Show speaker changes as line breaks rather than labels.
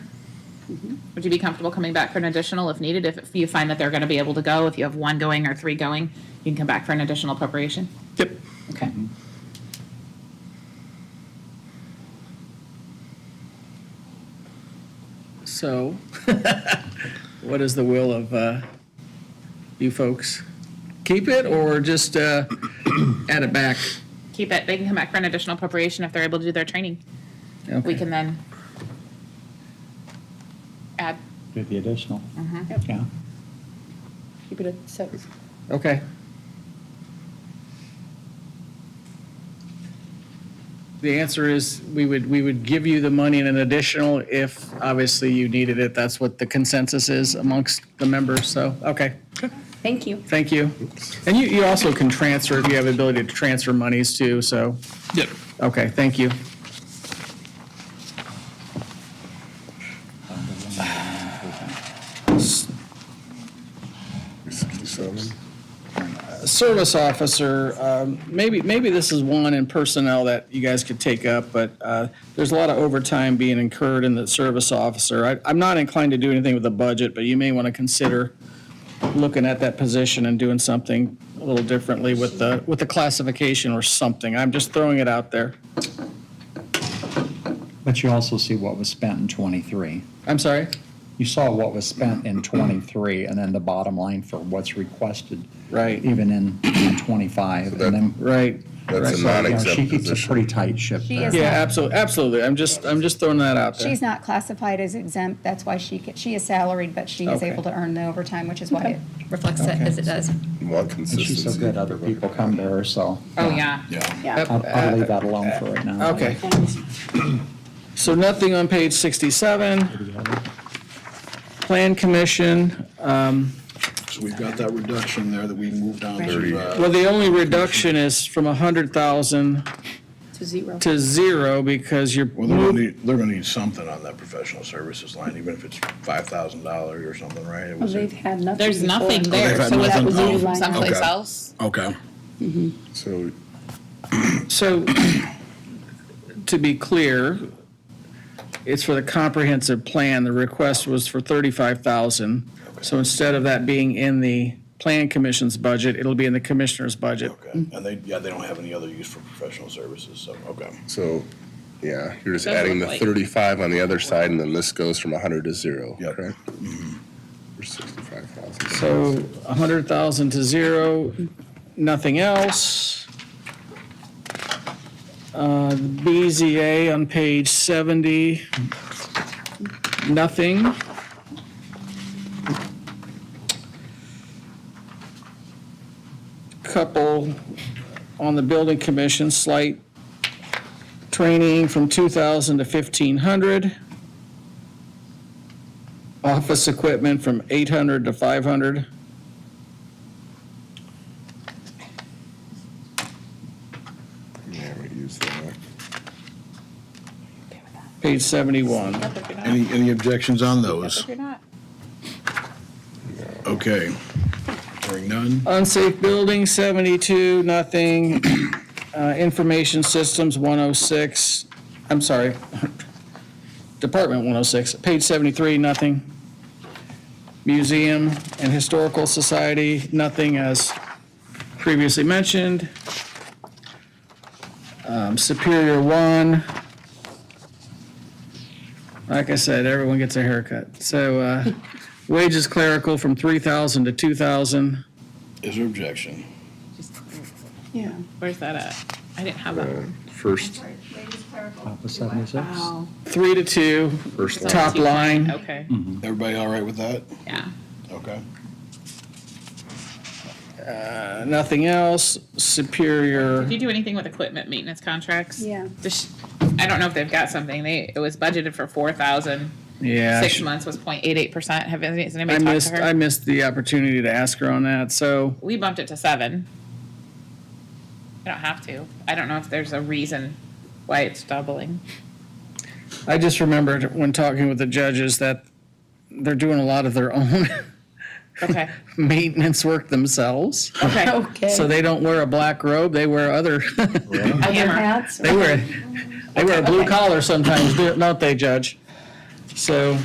Would you be comfortable coming back for an additional if needed? If you find that they're going to be able to go, if you have one going or three going, you can come back for an additional appropriation?
Yep.
Okay.
So, what is the will of uh, you folks? Keep it or just uh, add it back?
Keep it. They can come back for an additional appropriation if they're able to do their training. We
Okay.
can then add,
Do the additional.
Mm-hmm.
Yeah.
Keep it at six.
Okay. The answer is, we would, we would give you the money in an additional if obviously you needed it. That's what the consensus is amongst the members, so, okay.
Thank you.
Thank you. And you, you also can transfer, if you have the ability to transfer monies too, so,
Yep.
okay, thank you. Uh, Service officer, um, maybe, maybe this is one in personnel that you guys could take up, but uh, there's a lot of overtime being incurred in the service officer. I- I'm not inclined to do anything with the budget, but you may want to consider looking at that position and doing something a little differently with the, with the classification or something. I'm just throwing it out there.
But you also see what was spent in '23.
I'm sorry?
You saw what was spent in '23, and then the bottom line for what's requested.
Right.
Even in in '25, and then.
Right.
That's
So, you know,
a
She
non-exempt
keeps a
position.
pretty tight ship
She
there.
is
Yeah,
not,
absolutely, absolutely. I'm just, I'm just throwing that out there.
she's not classified as exempt, that's why she, ca- she is salaried, but she is
Okay.
able to earn the overtime, which is why it reflects it as it does.
More
And she's so
consistency.
good, other people come to her, so.
oh, yeah.
Yeah.
I'll, I'll leave that alone for right now.
Okay. So nothing on page 67. Plan commission,
So we've got that reduction there that we moved down
Thirty.
to, uh,
well, the only reduction is from 100,000
To zero.
to zero because you're
well, they're gonna
moving.
need, they're gonna need something on that professional services line, even if it's five thousand dollars or something, right? It was
They've
in-
had nothing.
There's
before.
nothing there,
had
so was
nothing.
it
Oh,
moved someplace
okay.
else?
Okay.
So
So, to be clear, it's for the comprehensive plan. The request was for 35,000. So instead of that being in the plan commission's budget, it'll be in the commissioner's budget.
Okay, and they, yeah, they don't have any other use for professional services, so, okay.
So, yeah, you're just
Doesn't
adding the
look like-
35 on the other side, and then this goes from 100 to zero,
Yep.
correct?
Mm-hmm.
Or 65,000.
So 100,000 to zero, nothing else. Uh, BZA on page 70, nothing. Couple on the building commission, slight training from 2,000 to 1,500. Office equipment from 800 to 500.
Yeah, we use that.
Page 71.
Any, any objections on those?
If you're not.
Okay. Hearing none,
Unsafe building, 72, nothing. Uh, Information systems, 106, I'm sorry, Department 106, page 73, nothing. Museum and Historical Society, nothing as previously mentioned. Um, Superior 1. Like I said, everyone gets a haircut. So uh, wages clerical from 3,000 to 2,000.
is there objection?
Just-
Yeah.
Where's that at? I didn't have that. one.
First,
Top of 76.
three to two,
first line.
top line.
Okay,
Everybody all right with that?
yeah.
Okay.
Uh, Nothing else, Superior,
Did you do anything with equipment maintenance contracts?
Yeah.
Does she- I don't know if they've got something. They, it was budgeted for four thousand.
yeah.
Six months was 0.88 percent. Have any- has
I
anybody talked
missed,
to
I
her?
missed the opportunity to ask her on that, so,
We bumped it to seven. I don't have to. I don't know if there's a reason why it's doubling.
I just remembered when talking with the judges that they're doing a lot of their own
Okay,
maintenance work themselves.
okay.
Okay.
So they don't wear a black robe, they wear other,
Hammer.
Hats or-
they wear, they wear a blue collar sometimes, don't they, Judge? So.